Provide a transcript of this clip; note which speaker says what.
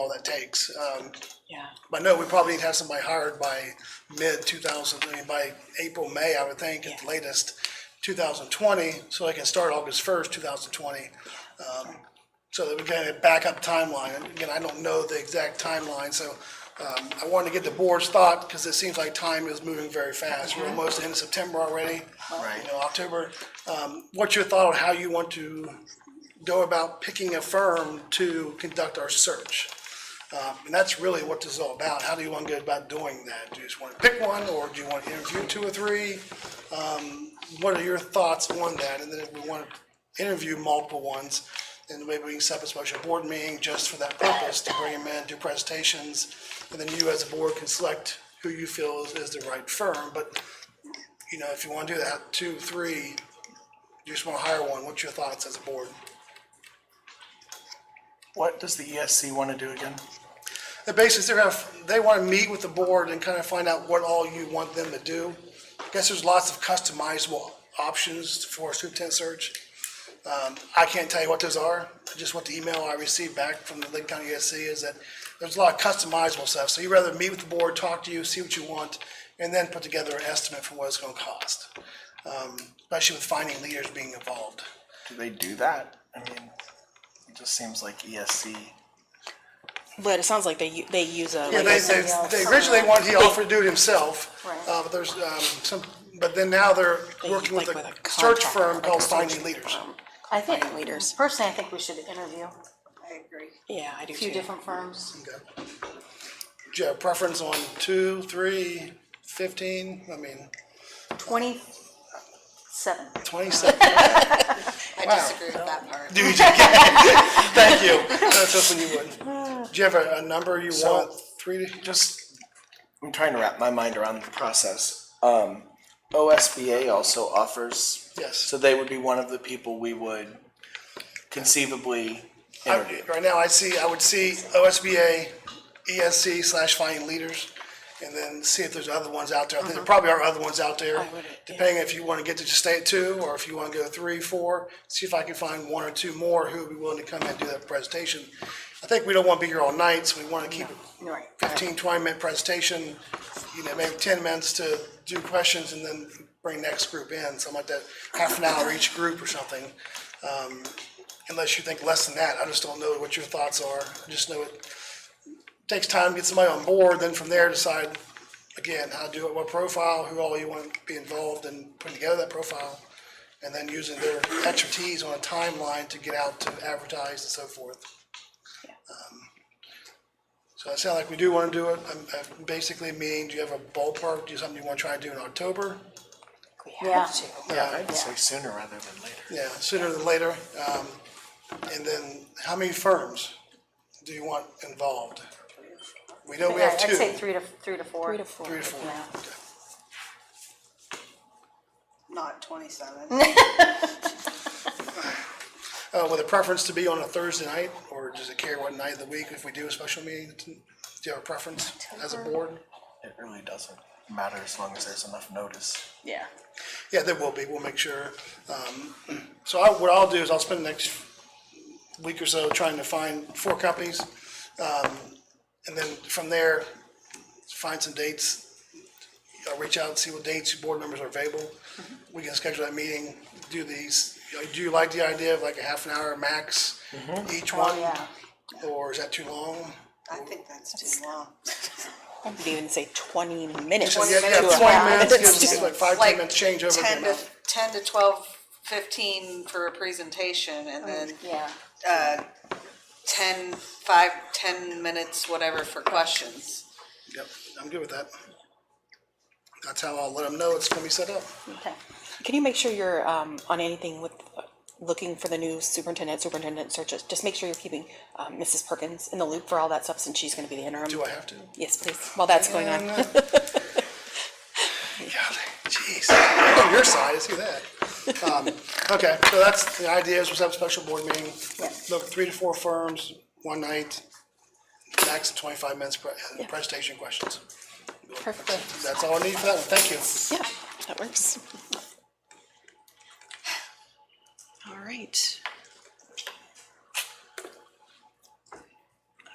Speaker 1: all that takes. Um,
Speaker 2: Yeah,
Speaker 1: But no, we probably need to have somebody hired by mid two thousand, I mean, by April, May, I would think, at the latest, two thousand twenty, so they can start August first, two thousand twenty. Um, So that we can get a backup timeline, and again, I don't know the exact timeline, so, um, I wanted to get the board's thought, because it seems like time is moving very fast. We're almost into September already.
Speaker 3: Right.
Speaker 1: You know, October. Um, what's your thought on how you want to go about picking a firm to conduct our search? Um, And that's really what this is all about. How do you want to go about doing that? Do you just want to pick one, or do you want to interview two or three? Um, What are your thoughts on that? And then if we want to interview multiple ones, then maybe we can set up a special board meeting just for that purpose, to bring them in, do presentations, and then you as a board can select who you feel is, is the right firm. But, you know, if you want to do that, two, three, you just want to hire one, what's your thoughts as a board?
Speaker 3: What does the ESC want to do again?
Speaker 1: They're basically, they're gonna, they wanna meet with the board and kind of find out what all you want them to do. I Guess there's lots of customizable options for superintendent search. Um, I can't tell you what those are, just what the email I received back from the Lake County ESC is that there's a lot of customizable stuff, so you'd rather meet with the board, talk to you, see what you want, and then put together an estimate for what it's gonna cost. Um, especially with finding leaders being involved.
Speaker 3: Do they do that? I mean, it just seems like E ESC.
Speaker 2: but it sounds like they, u- they use a.
Speaker 1: Yeah,
Speaker 2: like
Speaker 1: they,
Speaker 2: a-
Speaker 1: they, they originally wanted, he offered to do it himself.
Speaker 2: Right.
Speaker 1: Uh, but there's, um, some, but then now they're
Speaker 2: they use
Speaker 1: working with
Speaker 2: like
Speaker 1: a search
Speaker 2: contractor,
Speaker 1: firm
Speaker 2: like a
Speaker 1: called
Speaker 2: search
Speaker 1: Finding Leaders.
Speaker 2: firm.
Speaker 4: I think,
Speaker 2: leaders.
Speaker 4: personally, I think we should interview a
Speaker 5: I agree.
Speaker 2: Yeah, I do too.
Speaker 4: few different firms.
Speaker 1: Okay. Do you have a preference on two, three, fifteen, I mean,
Speaker 4: Twenty-seven.
Speaker 1: twenty-seven?
Speaker 5: I disagree with that part.
Speaker 1: Dude, you can't- thank you. That's just when you would. Do you have a, a number you
Speaker 3: So-
Speaker 1: want, three, to-
Speaker 3: Just, I'm trying to wrap my mind around the process. Um, OSBA also offers,
Speaker 1: yes.
Speaker 3: so they would be one of the people we would conceivably interview.
Speaker 1: Right now, I see, I would see OSBA, ESC E slash finding leaders, and then see if there's other ones out there. I think There probably are other ones out there,
Speaker 2: Uh-huh. would, yeah.
Speaker 1: depending if you want to get to just stay at two, or if you want to go three, four, see if I can find one or two more who would be willing to come in and do that presentation. I think we don't want to be here all night, so we want to keep it
Speaker 4: Right.
Speaker 1: 15, 20-minute presentation, you know, maybe 10 minutes to do questions and then bring next group in, something like that, half an hour each group or something. Um, Unless you think less than that, I just don't know what your thoughts are. I just know it takes time to get somebody on board, then from there decide, again, how to do it, what profile, who all you want to be involved in putting together that profile, and then using their expertise on a timeline to get out to advertise and so forth. So it sounds like we do want to do it. I'm, I'm basically meaning, do you have a ballpark? Do you something you want to try to do in October? Uh,
Speaker 2: We
Speaker 4: Yeah.
Speaker 2: have to.
Speaker 3: Yeah, I'd say sooner rather than later.
Speaker 1: Yeah, sooner than later. Um, and then how many firms do you want involved? We know we
Speaker 4: Yeah,
Speaker 1: have
Speaker 4: I'd
Speaker 1: two,
Speaker 4: say
Speaker 1: three
Speaker 4: three to, three to four.
Speaker 2: Three to four.
Speaker 1: to four.
Speaker 4: Yeah.
Speaker 1: Okay.
Speaker 5: Not twenty-seven.
Speaker 1: Uh, with a preference to be on a Thursday night, or does it care what night of the week if we do a special meeting? Do you have a preference as a board?
Speaker 3: It really doesn't matter as long as there's enough notice.
Speaker 4: Yeah.
Speaker 1: Yeah, there will be, we'll make sure. Um, So I, what I'll do is I'll spend the next week or so trying to find four companies. um, And then from there, find some dates. I'll reach out and see what dates your board members are available. We can schedule that meeting, do these. Do you like the idea of like a half an hour max each one?
Speaker 4: yeah.
Speaker 1: Or is that too long?
Speaker 5: I think that's too long.
Speaker 2: I would even say twenty minutes.
Speaker 1: Yeah,
Speaker 2: to
Speaker 1: yeah,
Speaker 2: a
Speaker 1: twenty
Speaker 2: half.
Speaker 1: minutes,
Speaker 2: It's
Speaker 1: gives us
Speaker 2: just-
Speaker 1: like five, ten minutes change over.
Speaker 5: Ten to, ten to twelve, fifteen for a presentation and then
Speaker 4: Yeah.
Speaker 5: ten, five, ten minutes, whatever for questions.
Speaker 1: Yep, I'm good with that. That's how I'll let them know it's gonna be set up.
Speaker 4: Okay.
Speaker 2: Can you make sure you're, um, on anything with, uh, looking for the new superintendent, superintendent searches? Just make sure you're keeping, um, Mrs. Perkins in the loop for all that stuff since she's gonna be the interim.
Speaker 1: Do I have to?
Speaker 2: Yes, please, while that's going on.
Speaker 1: And, uh, God, Jeez, on your side, I see that. Um, Okay, so that's, the idea is we'll have a special board meeting, look, three to four firms, one night, max twenty-five minutes pre- presentation questions.
Speaker 2: Perfect,
Speaker 1: That's all I need for that one, thank you.
Speaker 2: yeah, that works. All right.